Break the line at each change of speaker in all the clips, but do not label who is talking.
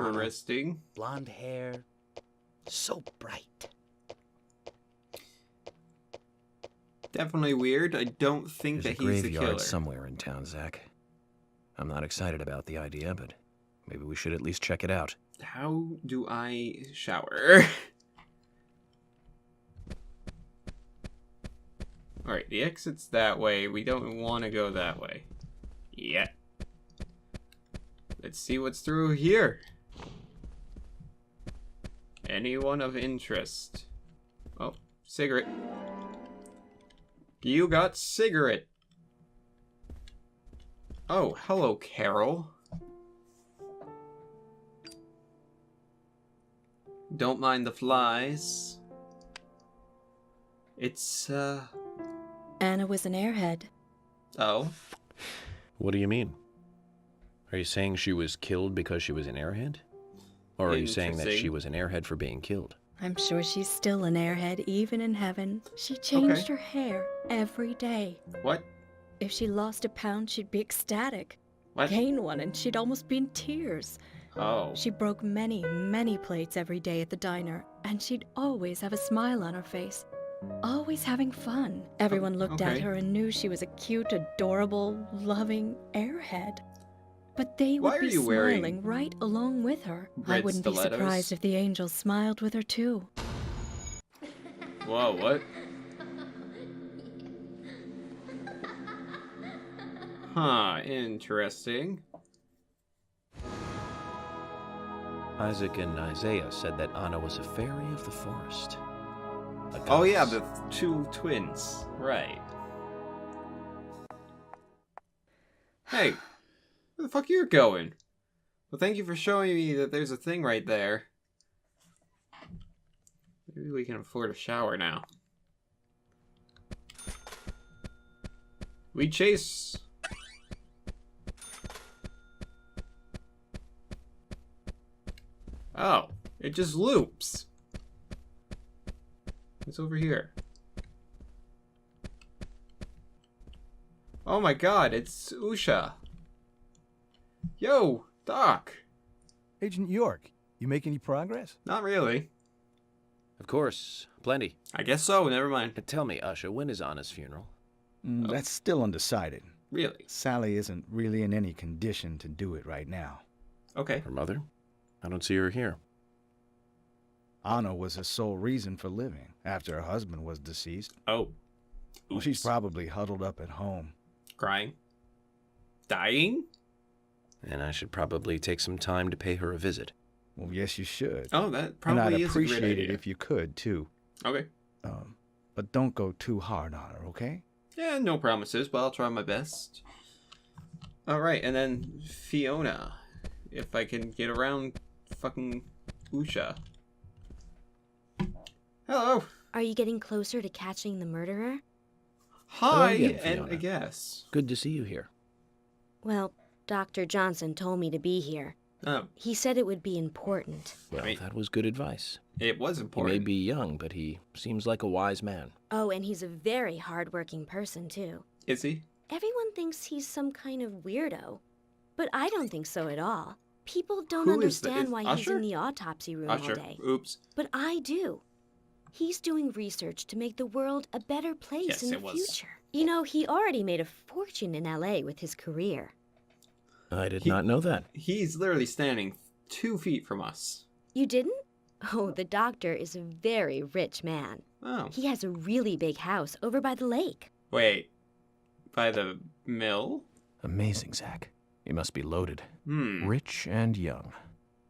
Interesting.
Blonde hair, so bright.
Definitely weird. I don't think
There's a
that he's the killer.
graveyard somewhere in town, Zach. I'm not excited about the idea, but maybe we should at least check it out.
How do I shower? Alright, the exit's that way. We don't want to go that way. Yet. Let's see what's through here. Anyone of interest? Oh, cigarette. You got cigarette. Oh, hello, Carol. Don't mind the flies. It's, uh.
Anna was an airhead.
Oh.
What do you mean? Are you saying she was killed because she was an airhead? Or are you saying that she
Interesting.
was an airhead for being killed?
I'm sure she's still an airhead, even in heaven. She changed her hair every day.
What?
If she lost a pound, she'd be ecstatic.
What?
Gain one, and she'd almost be in tears.
Oh.
She broke many, many plates every day at the diner, and she'd always have a smile on her face. Always having fun. Everyone looked
Oh, okay.
at her and knew she was a cute, adorable, loving airhead. But they would
Why are
be
you wearing
smiling right along with her. I
red
wouldn't be
stilettos?
surprised if the angels smiled with her too.
Whoa, what? Huh, interesting.
Isaac and Isaiah said that Anna was a fairy of the forest. A
Oh, yeah,
goddess.
the two twins. Right. Hey, where the fuck you're going? Well, thank you for showing me that there's a thing right there. Maybe we can afford a shower now. We chase. Oh, it just loops. It's over here. Oh my god, it's Usha. Yo, Doc.
Agent York, you make any progress?
Not really.
Of course, plenty.
I guess so, never mind.
And tell me, Usha, when is Anna's funeral?
Mm, That's still undecided.
Really?
Sally isn't really in any condition to do it right now.
Okay.
Her mother? I don't see her here.
Anna was her sole reason for living after her husband was deceased.
Oh.
Well, she's
Oops.
probably huddled up at home.
crying. Dying?
And I should probably take some time to pay her a visit.
Well, yes, you should.
Oh, that
and I'd
probably is a great
appreciate it
idea.
if you could, too.
Okay.
Um, but don't go too hard on her, okay?
Yeah, no promises, but I'll try my best. Alright, and then Fiona. If I can get around fucking Usha. Hello.
Are you getting closer to catching the murderer?
Hi,
again,
and
Fiona.
I guess.
Good to see you here.
Well, Dr. Johnson told me to be here.
Oh,
He said it would be important.
Well,
Right.
that was good advice.
it was
He may
important.
be young, but he seems like a wise man.
Oh, and he's a very hardworking person, too.
Is he?
Everyone thinks he's some kind of weirdo, but I don't think so at all. People don't
Who is the-
understand
is
why he's
Usher?
in the autopsy room
Usher.
all day.
Ah, Oops.
But I do. He's doing research to make the world a better place
Yes,
in the
it was.
future. You know, he already made a fortune in LA with his career.
I did
He-
not know that.
He's literally standing two feet from us.
You didn't? Oh, the doctor is a very rich man.
Oh.
He has a really big house over by the lake.
Wait. By the mill?
Amazing, Zach. You must be loaded.
Hmm.
Rich and young.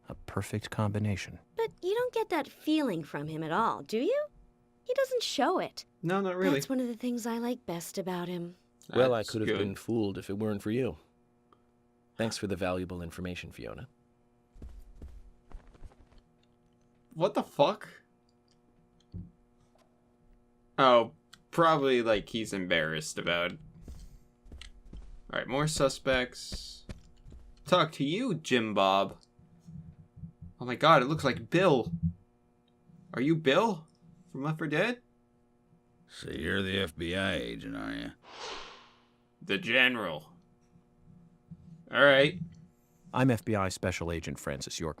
A perfect combination.
But you don't get that feeling from him at all, do you? He doesn't show it.
No, not really.
That's one of the things I like best about him.
well, I
That's
could have
good.
been fooled if it weren't for you. Thanks for the valuable information, Fiona.
What the fuck? Oh, probably like he's embarrassed about. Alright, more suspects. Talk to you, Jim Bob. Oh my god, it looks like Bill. Are you Bill? From Left 4 Dead?
So you're the FBI agent, are you?
The General. Alright.
I'm FBI Special Agent Francis York